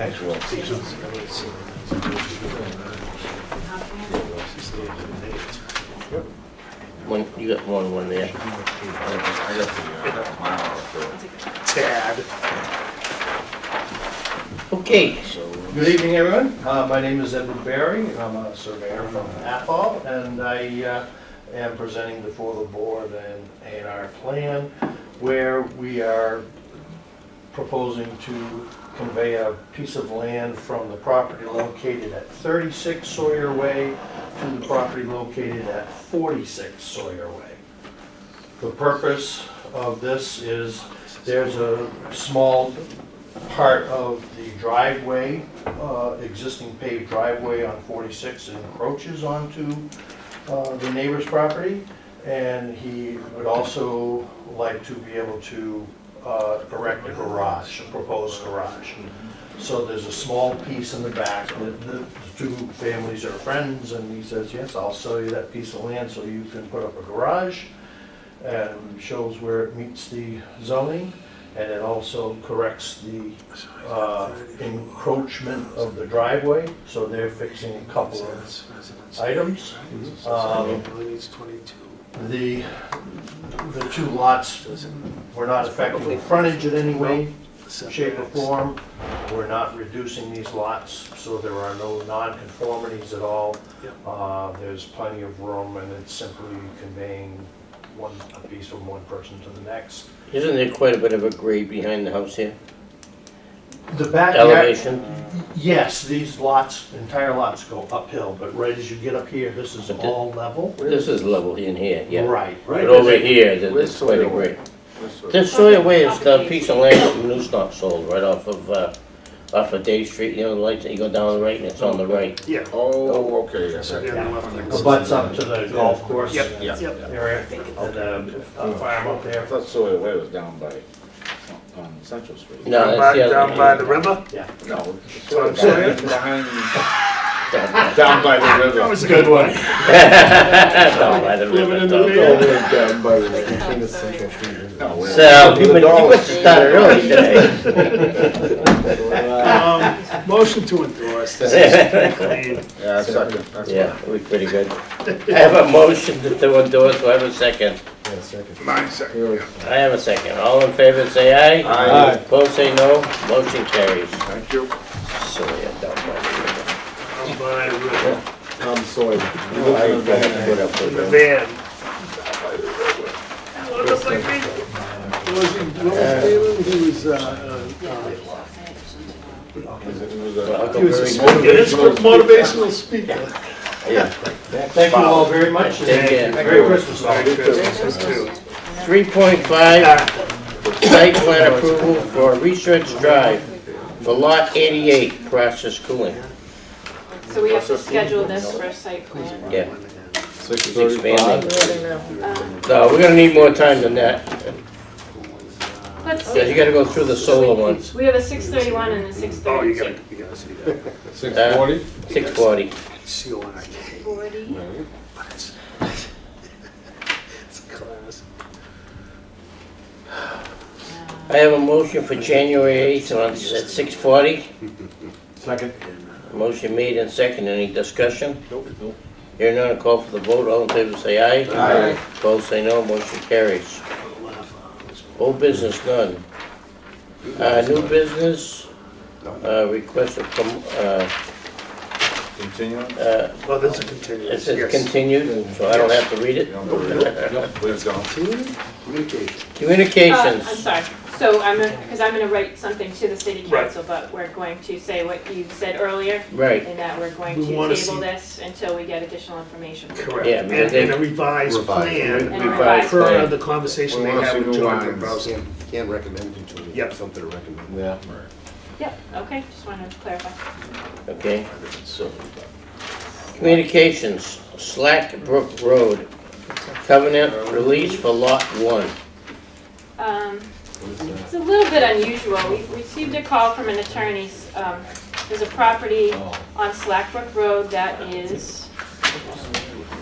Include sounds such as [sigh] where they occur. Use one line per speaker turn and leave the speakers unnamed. actual.
One, you got one, one there.
I got the, uh, mile or
Tad.
Okay,
so.
Good evening, everyone. Uh, My name is Edward Barry, and I'm a surveyor from Athol, and I uh, am presenting before the board an A and R plan where we are proposing to convey a piece of land from the property located at 36 Sawyer Way to the property located at 46 Sawyer Way. The purpose of this is, there's a small part of the driveway, uh, existing paved driveway on 46 that encroaches onto uh, the neighbor's property, and he would also like to be able to uh, erect a garage, a proposed garage. So there's a small piece in the back, that the the two families are friends, and he says, yes, I'll sell you that piece of land so you can put up a garage and shows where it meets the zoning, and it also corrects the uh, encroachment of the driveway, so they're fixing a couple of items. Um, The, the two lots were not affecting the frontage in any way, shape or form. We're not reducing these lots, so there are no nonconformities at all. Uh, There's plenty of room, and it's simply conveying one, a piece from one person to the next.
isn't there quite a bit of a grade behind the house here?
The backyard,
Elevation?
yes, these lots, entire lots go uphill, but right as you get up here, this is
But the-
all level.
This is level in here, yeah.
Right.
But over here, there- there's quite a grade. This Sawyer Way is the piece of land that New's not sold, right off of, uh, off of Day Street, you know, the lights that you go down the right and it's on the right. [laughs]
Yeah.
Oh, okay, yes, I-
The butts up to the golf course
Yep.
yeah, yeah.
area, and the farm up
I
there.
thought Sawyer Way was down by, on Central Street.
No. that's
Down by,
the other
down
one.
by the river?
No. it's
So I'm
down-
saying-
Behind,
Down by-
down by the river.
[laughs] a good one.
down by the river, down by-
down by the King of Central Street. isn't
No,
it?
we're-
So, uh, you must- you must [laughs] have started early today.
Motion to endorse.
[laughs]
This is clean.
Yeah, that's second, that's
Yeah, we pretty good. I have a motion to- to endorse, do I have a second?
Yeah, second.
Mine second.
Really.
I have a second. All in favor, say aye.
Aye.
Opposed, say no. Motion carries.
Thank you.
So, yeah, down by the
Down by the river.
Tom Sawyer.
In the van. Looks like me. Was he, what was Phelan? He was, uh, uh, uh,
river.
right.
Uncle Barry-
yeah, this was motivational speaker.
Yeah.
Thank you all very much,
Take care.
and Merry Christmas. all.
Three point five,
Ah.
site plan approval for Research Drive for lot eighty-eight, process cooling.
So we have to schedule this for a site plan.
Yeah,
Six
it's expanding. No, Uh, we're gonna need more time than that,
Let's
because you
see,
gotta go through the solar ones,
we have a six thirty-one and a six
Oh, you
thirty-two.
gotta, you gotta see that.
Six forty?
six forty.
See Oh, you on a K,
Forty.
but it's, it's a class.
I have a motion for January eighth on, at six forty.
Second.
Motion made and second, any discussion? Nope. Hearing none, I'll call for the vote, all in favor say aye.
Aye.
Opposed say no, motion carries. Old business none. Uh, new business, uh, request of, com- uh,
Continuing?
uh,
Well, this is
it
continuous,
says
yes.
continued, so I don't have to read
You
it.
don't believe it? Please don't.
Communication.
Uh, I'm
Communications,
sorry, so I'm, because I'm gonna write something to the city
Right.
council, but we're going to say what you said earlier,
right,
and that we're going
We wanna
to
see-
table this until we get additional information.
Correct.
Yeah,
And,
because they-
and a revised
Revised.
plan.
And revised
Per
plan.
the conversation
We
they
wanna
had
see
with
new
John
lines.
Dombrowski.
Can't recommend it to me.
Yep.
Something to recommend.
Yeah.
Yep, okay, just wanted to clarify.
okay.
So,
Communications, Slack Brook Road, covenant release for lot one.
Um,
What is that?
It's a little bit unusual. We received a call from an attorney.
Oh.
Um, There's a property on Slackbrook Road that is